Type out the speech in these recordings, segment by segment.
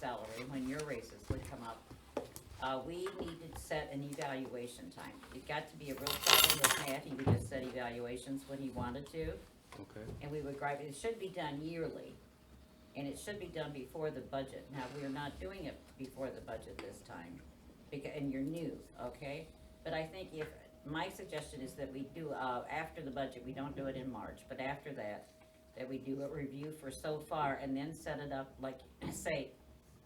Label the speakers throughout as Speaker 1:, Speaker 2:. Speaker 1: salary, when your raises would come up, uh, we needed to set an evaluation time. It got to be a real problem with Matt, he would just set evaluations when he wanted to,
Speaker 2: Okay,
Speaker 1: and we would gripe, it should be done yearly. And it should be done before the budget, now, we are not doing it before the budget this time, becau- and you're new, okay? But I think if, my suggestion is that we do, uh, after the budget, we don't do it in March, but after that, that we do a review for so far and then set it up like, say,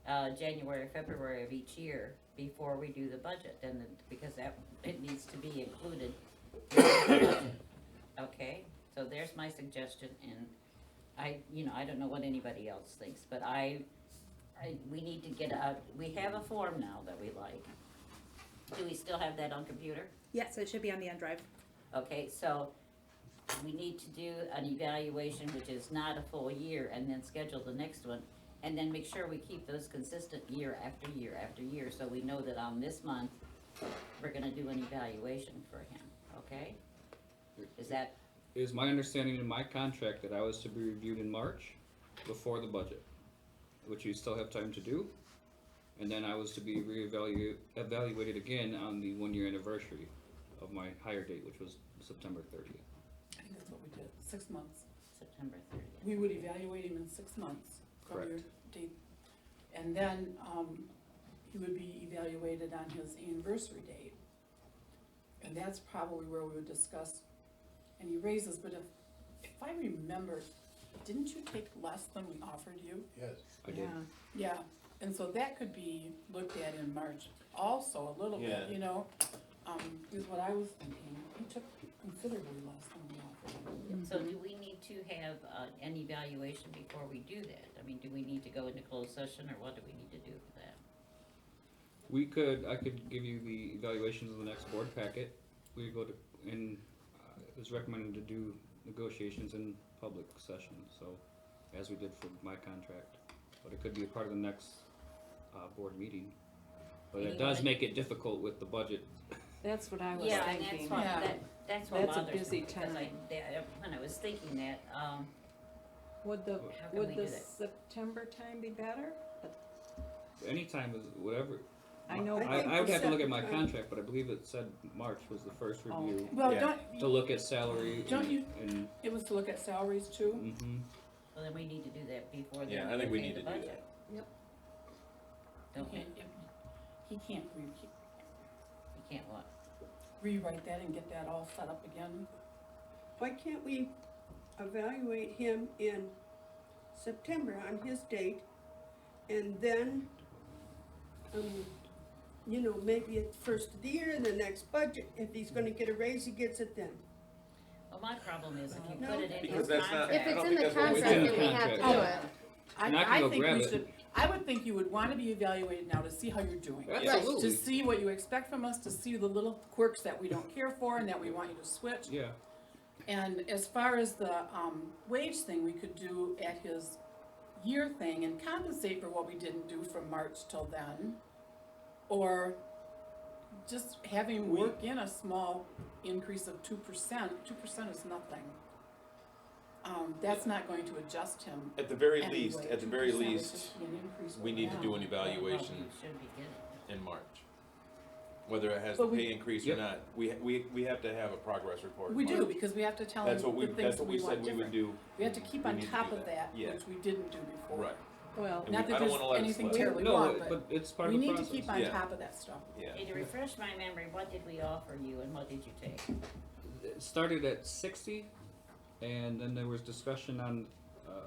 Speaker 1: uh, January, February of each year before we do the budget, and then, because that, it needs to be included. in the budget. Okay, so there's my suggestion, and I, you know, I don't know what anybody else thinks, but I, I, we need to get a, we have a form now that we like. Do we still have that on computer?
Speaker 3: Yes, it should be on the end drive.
Speaker 1: Okay, so we need to do an evaluation, which is not a full year, and then schedule the next one. And then make sure we keep those consistent year after year after year, so we know that on this month, we're gonna do an evaluation for him, okay? Is that,
Speaker 2: it is my understanding in my contract that I was to be reviewed in March before the budget, which you still have time to do. And then I was to be reevaluated, evaluated again on the one-year anniversary of my hire date, which was September thirtieth.
Speaker 4: I think that's what we did, six months.
Speaker 1: September thirtieth?
Speaker 4: We would evaluate him in six months from your date. And then, um, he would be evaluated on his anniversary date. And that's probably where we would discuss any raises, but if, if I remember, didn't you take less than we offered you?
Speaker 5: Yes,
Speaker 2: I did,
Speaker 4: Yeah, and so that could be looked at in March also a little bit,
Speaker 5: Yeah.
Speaker 4: you know? Um, is what I was thinking, he took considerably less than we offered him.
Speaker 1: So do we need to have, uh, an evaluation before we do that? I mean, do we need to go into closed session, or what do we need to do for that?
Speaker 2: we could, I could give you the evaluations in the next board packet, we go to, and uh, it was recommended to do negotiations in public session, so, as we did for my contract, but it could be a part of the next, uh, board meeting. But it does
Speaker 1: Anyone-
Speaker 2: make it difficult with the budget,
Speaker 6: That's what I was
Speaker 1: Yeah, and that's
Speaker 6: thinking.
Speaker 1: why,
Speaker 4: Yeah.
Speaker 1: that, that's what
Speaker 6: That's a
Speaker 1: bothers me.
Speaker 6: busy
Speaker 1: because I-
Speaker 6: time.
Speaker 1: that- uh, When I was thinking that, um,
Speaker 6: Would the,
Speaker 1: How can we
Speaker 6: would
Speaker 1: do
Speaker 6: the
Speaker 1: that?
Speaker 6: September time be better?
Speaker 2: anytime is, whatever,
Speaker 6: I know,
Speaker 2: I,
Speaker 4: think
Speaker 2: I would have to look at my
Speaker 4: percent-
Speaker 2: contract, but I believe it said March was the first
Speaker 6: Oh,
Speaker 2: review,
Speaker 6: okay.
Speaker 4: Well,
Speaker 5: Yeah.
Speaker 4: don't,
Speaker 2: to look at salary
Speaker 4: Don't
Speaker 2: and,
Speaker 4: you-
Speaker 2: and,
Speaker 4: It was to look at salaries too?
Speaker 2: mhm,
Speaker 1: well, then we need to do that before the.
Speaker 5: Yeah, I think we need
Speaker 1: the
Speaker 5: to do
Speaker 1: budget.
Speaker 6: Yep.
Speaker 1: Don't we,
Speaker 4: Okay, he can't re-
Speaker 1: we can't what,
Speaker 4: rewrite that and get that all set up again.
Speaker 7: Why can't we evaluate him in September on his date? And then, um, you know, maybe at the first of the year, the next budget, if he's gonna get a raise, he gets it then.
Speaker 1: well, my problem is if you
Speaker 4: No.
Speaker 1: put it in your
Speaker 5: Because that's not-
Speaker 1: contract.
Speaker 8: If
Speaker 5: I
Speaker 8: it's
Speaker 5: don't
Speaker 8: in
Speaker 5: think
Speaker 8: the
Speaker 5: that's what we
Speaker 8: contract,
Speaker 2: do.
Speaker 8: then we have to
Speaker 2: Contract.
Speaker 8: do it.
Speaker 2: And I can go
Speaker 4: think
Speaker 2: grab
Speaker 4: we
Speaker 2: it.
Speaker 4: should. I would think you would wanna be evaluated now to see how you're doing. To
Speaker 2: absolutely,
Speaker 4: see what you expect from us, to see the little quirks that we don't care for and that we want you to switch.
Speaker 2: yeah,
Speaker 4: And as far as the, um, wage thing, we could do at his year thing and compensate for what we didn't do from March till then. Or just have him work in a small increase of two percent, two percent is nothing. Um, that's not going to adjust him
Speaker 5: at the very
Speaker 4: anyway.
Speaker 5: least, at the very
Speaker 4: 2% would
Speaker 5: least,
Speaker 4: just be an increase
Speaker 5: we
Speaker 4: over
Speaker 5: need to
Speaker 4: now.
Speaker 5: do an
Speaker 1: Well,
Speaker 5: evaluation
Speaker 1: you Should be getting it.
Speaker 5: in March. Whether it has a
Speaker 4: But we-
Speaker 5: pay increase or
Speaker 2: Yep.
Speaker 5: not, we, we, we have to have a progress report. in
Speaker 4: We do,
Speaker 5: March.
Speaker 4: because we have to tell him
Speaker 5: That's
Speaker 4: the
Speaker 5: what we,
Speaker 4: things
Speaker 5: that's
Speaker 4: that
Speaker 5: what we
Speaker 4: we
Speaker 5: said
Speaker 4: want
Speaker 5: we
Speaker 4: different.
Speaker 5: would do.
Speaker 4: We have to keep
Speaker 5: We
Speaker 4: on
Speaker 5: need to
Speaker 4: top
Speaker 5: do
Speaker 4: of
Speaker 5: that.
Speaker 4: that,
Speaker 5: Yeah.
Speaker 4: which we didn't do before.
Speaker 5: Right,
Speaker 6: well,
Speaker 4: Not
Speaker 5: And we- I
Speaker 4: that
Speaker 5: don't
Speaker 4: there's
Speaker 5: wanna let it
Speaker 4: anything
Speaker 5: slide.
Speaker 4: terribly
Speaker 2: no,
Speaker 4: wrong,
Speaker 2: it-
Speaker 4: but
Speaker 2: but it's part
Speaker 4: we
Speaker 2: of the process.
Speaker 4: need to keep on
Speaker 5: Yeah.
Speaker 4: top of that stuff.
Speaker 5: yeah.
Speaker 1: Hey, to refresh my memory, what did we offer you and what did you take?
Speaker 2: it started at 60 and then there was discussion on uh,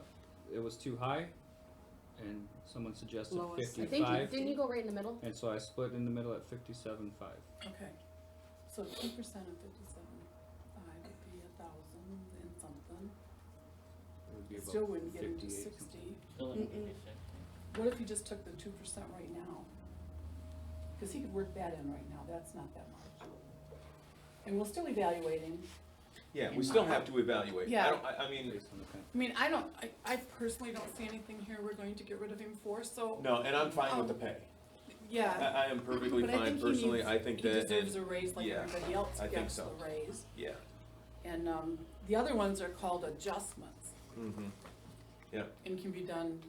Speaker 2: it was too high and someone suggested
Speaker 6: Lowest.
Speaker 8: I think, you
Speaker 2: 55
Speaker 8: didn't you go right in the middle?
Speaker 2: and so i split in the middle at 57.5
Speaker 4: Okay, so two percent of fifty-seven, five would be a thousand and something,
Speaker 2: it would be
Speaker 4: It
Speaker 2: about
Speaker 4: still wouldn't get into
Speaker 2: 58 something.
Speaker 4: sixty.
Speaker 1: Still in the
Speaker 7: Mm-mm.
Speaker 1: contract.
Speaker 4: What if you just took the two percent right now? Cause he could work that in right now, that's not that much. And we'll still evaluate him,
Speaker 5: Yeah, we still have to evaluate. I
Speaker 4: Yeah.
Speaker 5: don't, I, I mean,
Speaker 2: Based on the con-
Speaker 4: I mean, I don't, I, I personally don't see anything here we're going to get rid of him for, so,
Speaker 5: no, and I'm fine with the pay. I,
Speaker 4: yeah.
Speaker 5: I am perfectly
Speaker 4: But I
Speaker 5: fine
Speaker 4: think he
Speaker 5: personally,
Speaker 4: needs-
Speaker 5: I think
Speaker 4: He
Speaker 5: that,
Speaker 4: deserves
Speaker 5: and,
Speaker 4: a raise like
Speaker 5: yeah,
Speaker 4: everybody else
Speaker 5: I think
Speaker 4: gets a
Speaker 5: so.
Speaker 4: raise.
Speaker 5: yeah,
Speaker 4: And, um, the other ones are called adjustments
Speaker 5: mhm.
Speaker 4: and can be done